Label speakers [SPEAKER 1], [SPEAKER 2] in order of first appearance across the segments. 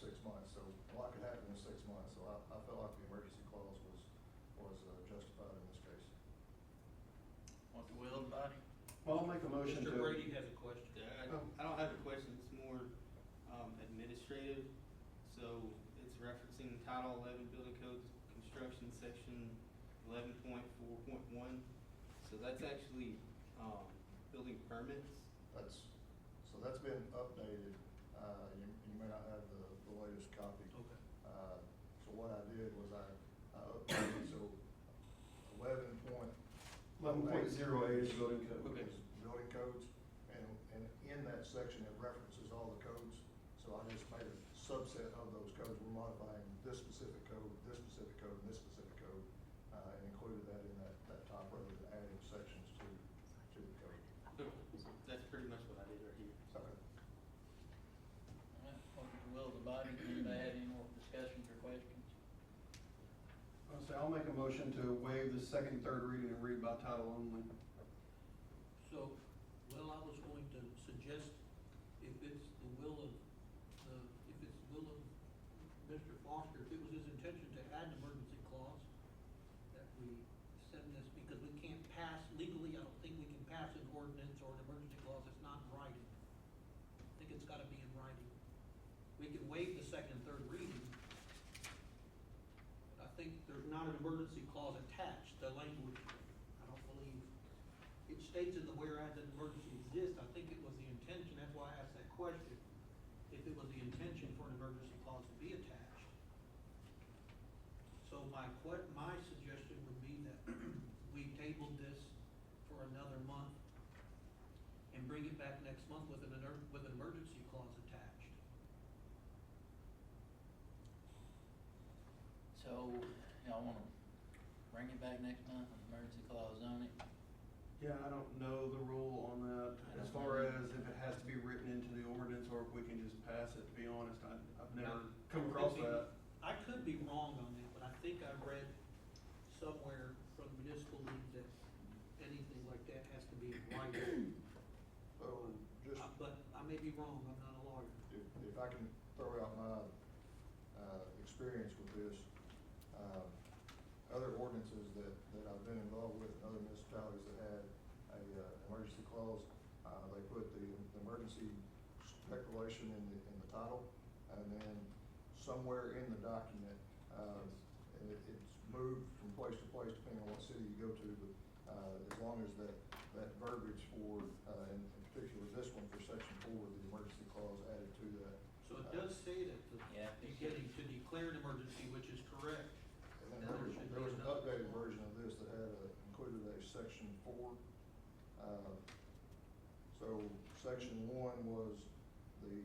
[SPEAKER 1] uh,
[SPEAKER 2] Well, I'll make a motion
[SPEAKER 3] Mr. Brady
[SPEAKER 2] to,
[SPEAKER 3] has a question.
[SPEAKER 4] Yeah, I don't, I don't have a question, it's more, um, administrative. So it's referencing Title eleven Building Code Construction Section eleven point four point one. So that's actually, um, building permits.
[SPEAKER 1] That's, so that's been updated, uh, you, you may not have the, the latest copy.
[SPEAKER 3] Okay.
[SPEAKER 1] Uh, so what I did was I, I updated, so eleven point.
[SPEAKER 2] eleven point zero eight is building code.
[SPEAKER 4] Okay.
[SPEAKER 1] is Building codes, and, and in that section, it references all the codes. So I just made a subset of those codes, we're modifying this specific code, this specific code, and this specific code, uh, and included that in that, that top row, and adding sections to, to the code.
[SPEAKER 4] That's pretty much what I did right here.
[SPEAKER 1] Okay.
[SPEAKER 5] All right, What is the will of the body, anybody have any more discussions or questions?
[SPEAKER 2] I'll say, I'll make a motion to waive the second, third reading and read by title only.
[SPEAKER 3] So, well, I was going to suggest, if it's the will of, uh, if it's the will of Mr. Foster, if it was his intention to add an emergency clause, that we send this, because we can't pass legally, I don't think we can pass an ordinance or an emergency clause, it's not in writing. I think it's gotta be in writing. We can waive the second and third reading. But I think there's not an emergency clause attached, the language, I don't believe it states in the whereas that emergency exists, I think it was the intention, that's why I asked that question, if it was the intention for an emergency clause to be attached. So my que, my suggestion would be that we table this for another month and bring it back next month with an, emer- with an emergency clause attached.
[SPEAKER 5] So, y'all wanna bring it back next month, with emergency clause on it?
[SPEAKER 2] Yeah, I don't know the rule on that, as far as if it has to be written into the ordinance or if we can just pass it, to be honest, I, I've never come across that.
[SPEAKER 3] I could be wrong on that, but I think I read somewhere from municipal league that anything like that has to be in writing.
[SPEAKER 1] So just,
[SPEAKER 3] Uh, But I may be wrong, I'm not a lawyer.
[SPEAKER 1] if, if I can throw out my, uh, experience with this, um, other ordinances that, that I've been involved with, in other municipalities that had a, uh, emergency clause, uh, they put the the emergency declaration in the, in the title, and then somewhere in the document, um, and it, it's moved from place to place depending on what city you go to, but, uh, as long as that, that verbiage for, uh, in in particular this one for section four, the emergency clause added to that.
[SPEAKER 3] So it does say that
[SPEAKER 5] Yeah.
[SPEAKER 3] the, you get to declare an emergency, which is correct.
[SPEAKER 1] And then there was, there was an updated version of this that had a, included a section four. Uh, So section one was the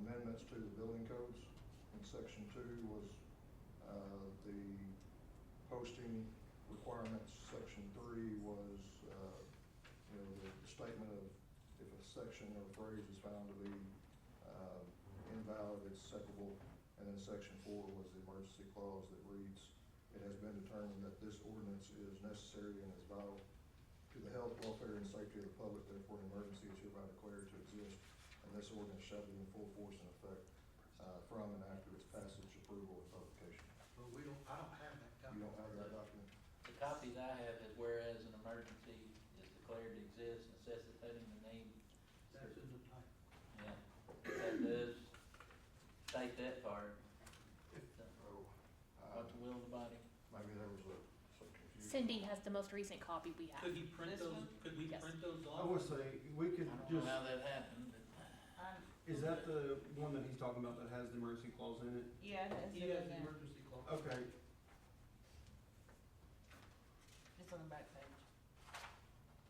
[SPEAKER 1] amendments to the building codes, and section two was, uh, the posting requirements. Section three was, uh, you know, the statement of if a section or phrase is found to be, uh, invalid, it's separable. And then section four was the emergency clause that reads, it has been determined that this ordinance is necessary and is vital to the health, welfare, and safety of the public, therefore an emergency is hereby declared to exist, and this ordinance shall be in full force and effect uh, from and after its passage, approval, and publication.
[SPEAKER 3] But we don't, I don't have that copy.
[SPEAKER 1] You don't have that document?
[SPEAKER 5] The copies I have is whereas an emergency is declared to exist necessitating the need,
[SPEAKER 3] That's in the title.
[SPEAKER 5] yeah, that does state that part.
[SPEAKER 1] Oh, uh,
[SPEAKER 5] What the will of the body?
[SPEAKER 1] Maybe there was a- some confusion.
[SPEAKER 6] Cindy has the most recent copy we have.
[SPEAKER 3] Could he print
[SPEAKER 5] This
[SPEAKER 3] those,
[SPEAKER 5] one?
[SPEAKER 3] could we
[SPEAKER 6] Yes.
[SPEAKER 3] print those off?
[SPEAKER 2] I would say, we
[SPEAKER 5] I
[SPEAKER 2] could
[SPEAKER 5] don't know how
[SPEAKER 2] just,
[SPEAKER 5] that happened,
[SPEAKER 2] is that the one that he's talking about that has the emergency clause in it?
[SPEAKER 7] Yeah, it
[SPEAKER 3] He has the
[SPEAKER 7] is.
[SPEAKER 3] emergency clause.
[SPEAKER 2] Okay,
[SPEAKER 7] It's on the back page.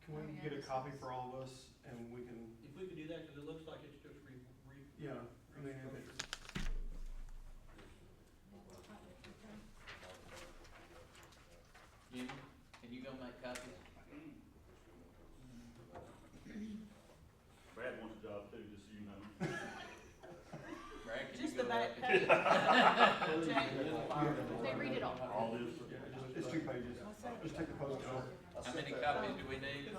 [SPEAKER 2] can we get a copy for all of us and we can,
[SPEAKER 3] If we could do that, because it looks like it's just re, re.
[SPEAKER 2] yeah, I mean, if it's-
[SPEAKER 5] but Jimmy, can you go make copies?
[SPEAKER 8] Brad wants a job too, just so you know.
[SPEAKER 5] Brad, can you
[SPEAKER 7] Just the
[SPEAKER 5] go
[SPEAKER 7] back
[SPEAKER 5] make a-
[SPEAKER 7] page.
[SPEAKER 6] They read it all.
[SPEAKER 8] All this.
[SPEAKER 2] yeah, just- it's two pages.
[SPEAKER 7] What's that?
[SPEAKER 2] Just take the post off.
[SPEAKER 1] I
[SPEAKER 5] How
[SPEAKER 1] sent
[SPEAKER 5] many
[SPEAKER 1] that-
[SPEAKER 5] copies do we need?